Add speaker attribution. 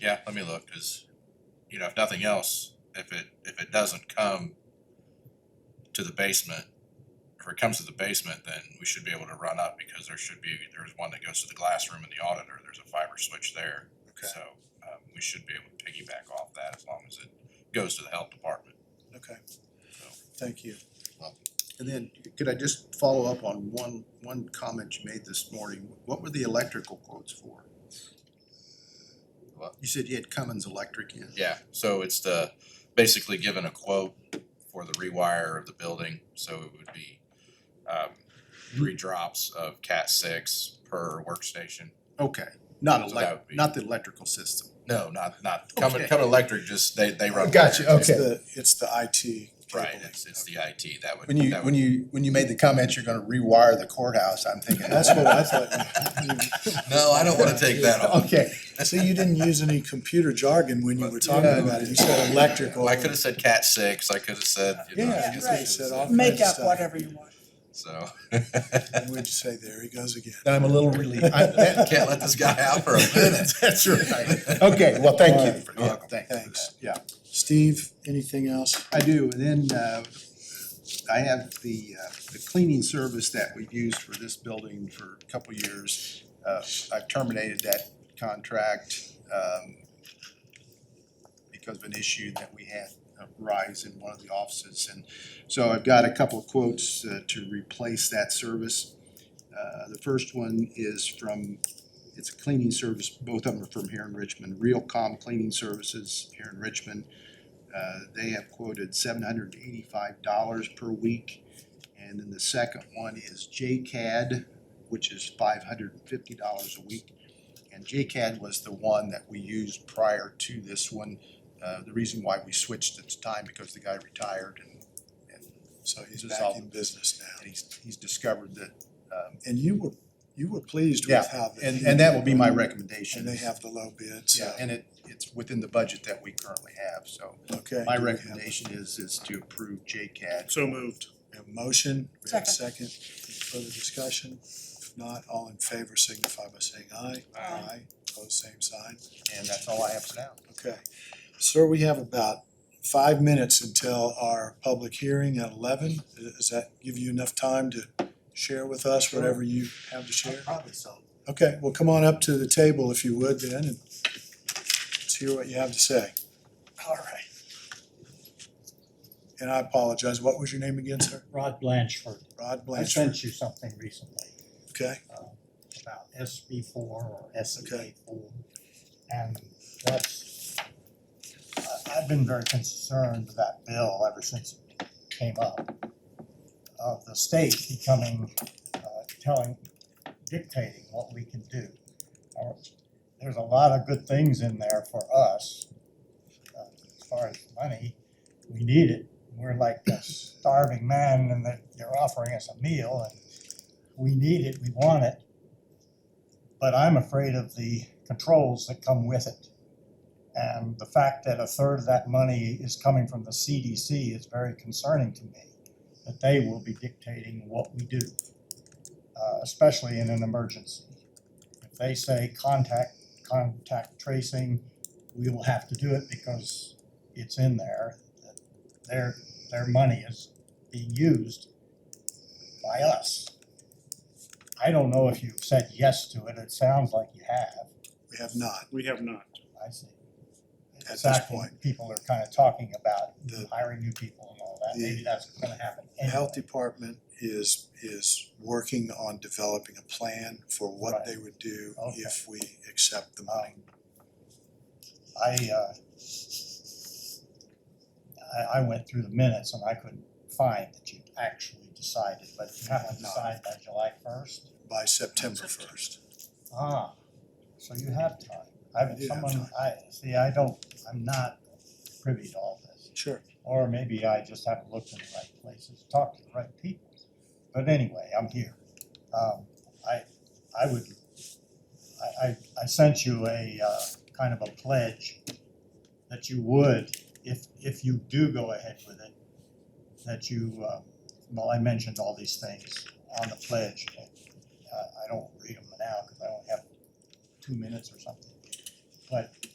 Speaker 1: yeah, let me look, cause, you know, if nothing else, if it, if it doesn't come to the basement, if it comes to the basement, then we should be able to run up, because there should be, there's one that goes to the glass room in the auditor, there's a fiber switch there.
Speaker 2: Okay.
Speaker 1: So, um, we should be able to piggyback off that as long as it goes to the health department.
Speaker 2: Okay,
Speaker 1: So-
Speaker 2: thank you.
Speaker 1: Welcome.
Speaker 2: And then, could I just follow up on one, one comment you made this morning? What were the electrical quotes for?
Speaker 1: What?
Speaker 2: You said you had Cummins Electric in.
Speaker 1: Yeah, so it's the, basically given a quote for the rewire of the building, so it would be um three drops of cat six per workstation.
Speaker 2: Okay, not
Speaker 1: So that would
Speaker 2: elec,
Speaker 1: be-
Speaker 2: not the electrical system.
Speaker 1: No, not not coming
Speaker 2: Okay.
Speaker 1: coming electric, just they they run.
Speaker 2: Gotcha,
Speaker 1: wires.
Speaker 3: It's
Speaker 2: Okay.
Speaker 3: the, it's the IT
Speaker 1: Right,
Speaker 3: cabling.
Speaker 1: it's it's the IT, that would
Speaker 2: When you,
Speaker 1: that
Speaker 2: when
Speaker 1: would,
Speaker 2: you, when you made the comment, you're gonna rewire the courthouse, I'm thinking,
Speaker 3: That's what I thought.
Speaker 1: No, I don't wanna take that on.
Speaker 2: Okay,
Speaker 3: See, you didn't use any computer jargon when you were talking
Speaker 2: Yeah.
Speaker 3: about it. You said electrical.
Speaker 1: I could have said cat six, I could have said, you know, I
Speaker 3: Yeah,
Speaker 1: guess
Speaker 3: you could
Speaker 1: I
Speaker 3: have
Speaker 4: right.
Speaker 3: said
Speaker 1: should've
Speaker 3: all kinds
Speaker 4: Make
Speaker 3: of
Speaker 4: up
Speaker 3: stuff.
Speaker 4: whatever you want.
Speaker 1: So
Speaker 3: And what'd you say? There he goes again.
Speaker 2: then I'm a little relieved. I- that-
Speaker 1: can't let this guy out for a minute.
Speaker 2: That's right. Okay, well, thank
Speaker 3: All
Speaker 2: you.
Speaker 3: right.
Speaker 2: for-
Speaker 1: You're
Speaker 2: yeah,
Speaker 1: welcome.
Speaker 2: thank you for
Speaker 3: Thanks.
Speaker 2: that. Yeah.
Speaker 3: Steve, anything else?
Speaker 2: I do, and then uh I have the uh the cleaning service that we've used for this building for a couple years. Uh I've terminated that contract um because of an issue that we had arise in one of the offices. And so I've got a couple of quotes uh, to replace that service. Uh the first one is from, it's a cleaning service, both of them are from here in Richmond, Real Calm Cleaning Services here in Richmond. Uh, they have quoted seven hundred and eighty-five dollars per week. And then the second one is JCAD, which is five hundred and fifty dollars a week. And JCAD was the one that we used prior to this one. Uh, the reason why we switched at the time because the guy retired and, and
Speaker 3: So he's
Speaker 2: This is
Speaker 3: back
Speaker 2: all-
Speaker 3: in business now.
Speaker 2: he's, he's discovered that, um,
Speaker 3: And you were, you were pleased
Speaker 2: Yeah,
Speaker 3: with how. the-
Speaker 2: and, and that will be my recommendation.
Speaker 3: And they have the low bid,
Speaker 2: Yeah,
Speaker 3: so,
Speaker 2: and it, it's within the budget that we currently have, so
Speaker 3: okay.
Speaker 2: my
Speaker 3: Do we have a-
Speaker 2: recommendation is, is to approve JCAD.
Speaker 5: So moved.
Speaker 3: We have a motion, we have a second, Any further discussion? If not, all in favor signify by saying aye.
Speaker 1: Aye.
Speaker 4: Um,
Speaker 3: Pose same sign.
Speaker 2: And that's all I have for now.
Speaker 3: Okay. Sir, we have about five minutes until our public hearing at eleven. Does that give you enough time to share with us whatever you have to share?
Speaker 2: Probably so.
Speaker 3: Okay, well, come on up to the table if you would then and let's hear what you have to say.
Speaker 6: All right.
Speaker 3: And I apologize, what was your name again, sir?
Speaker 6: Rod Blanchford.
Speaker 3: Rod
Speaker 6: I
Speaker 3: Blanchard,
Speaker 6: sent you something recently
Speaker 3: okay?
Speaker 6: um, about SB four or SEA four. And that's, I, I've been very concerned with that bill ever since it came up. Of the state becoming, uh, telling, dictating what we can do. Uh, There's a lot of good things in there for us. uh, As far as money, we need it. We're like a starving man and they're, they're offering us a meal and we need it, we want it. But I'm afraid of the controls that come with it. And the fact that a third of that money is coming from the CDC is very concerning to me, that they will be dictating what we do, uh, especially in an emergency. If they say contact, contact tracing, we will have to do it because it's in there. that Their, their money is being used by us. I don't know if you've said yes to it, it sounds like you have,
Speaker 3: We have not,
Speaker 5: We have not.
Speaker 6: I see.
Speaker 3: At this
Speaker 6: Exactly,
Speaker 3: point.
Speaker 6: people are kind of talking about
Speaker 3: the
Speaker 6: hiring new people and all that,
Speaker 3: The-
Speaker 6: maybe that's gonna happen
Speaker 3: The
Speaker 6: anyway.
Speaker 3: health department is, is working on developing a plan for what
Speaker 6: Right.
Speaker 3: they would do
Speaker 6: Okay.
Speaker 3: if we accept the money.
Speaker 6: Um, I, uh, I, I went through the minutes and I couldn't find that you actually decided, but you have to
Speaker 3: No.
Speaker 6: decide by July first.
Speaker 3: by September first.
Speaker 6: Ah, so you have time.
Speaker 3: I
Speaker 6: I've,
Speaker 3: do have
Speaker 6: someone,
Speaker 3: time.
Speaker 6: I, see, I don't, I'm not privy to all this.
Speaker 3: Sure.
Speaker 6: Or maybe I just haven't looked in the right places, talked to the right people. But anyway, I'm here. Um, I, I would, I, I, I sent you a, uh, kind of a pledge that you would, if, if you do go ahead with it, that you, uh, well, I mentioned all these things on the pledge. but, Uh, I don't read them now because I only have two minutes or something. But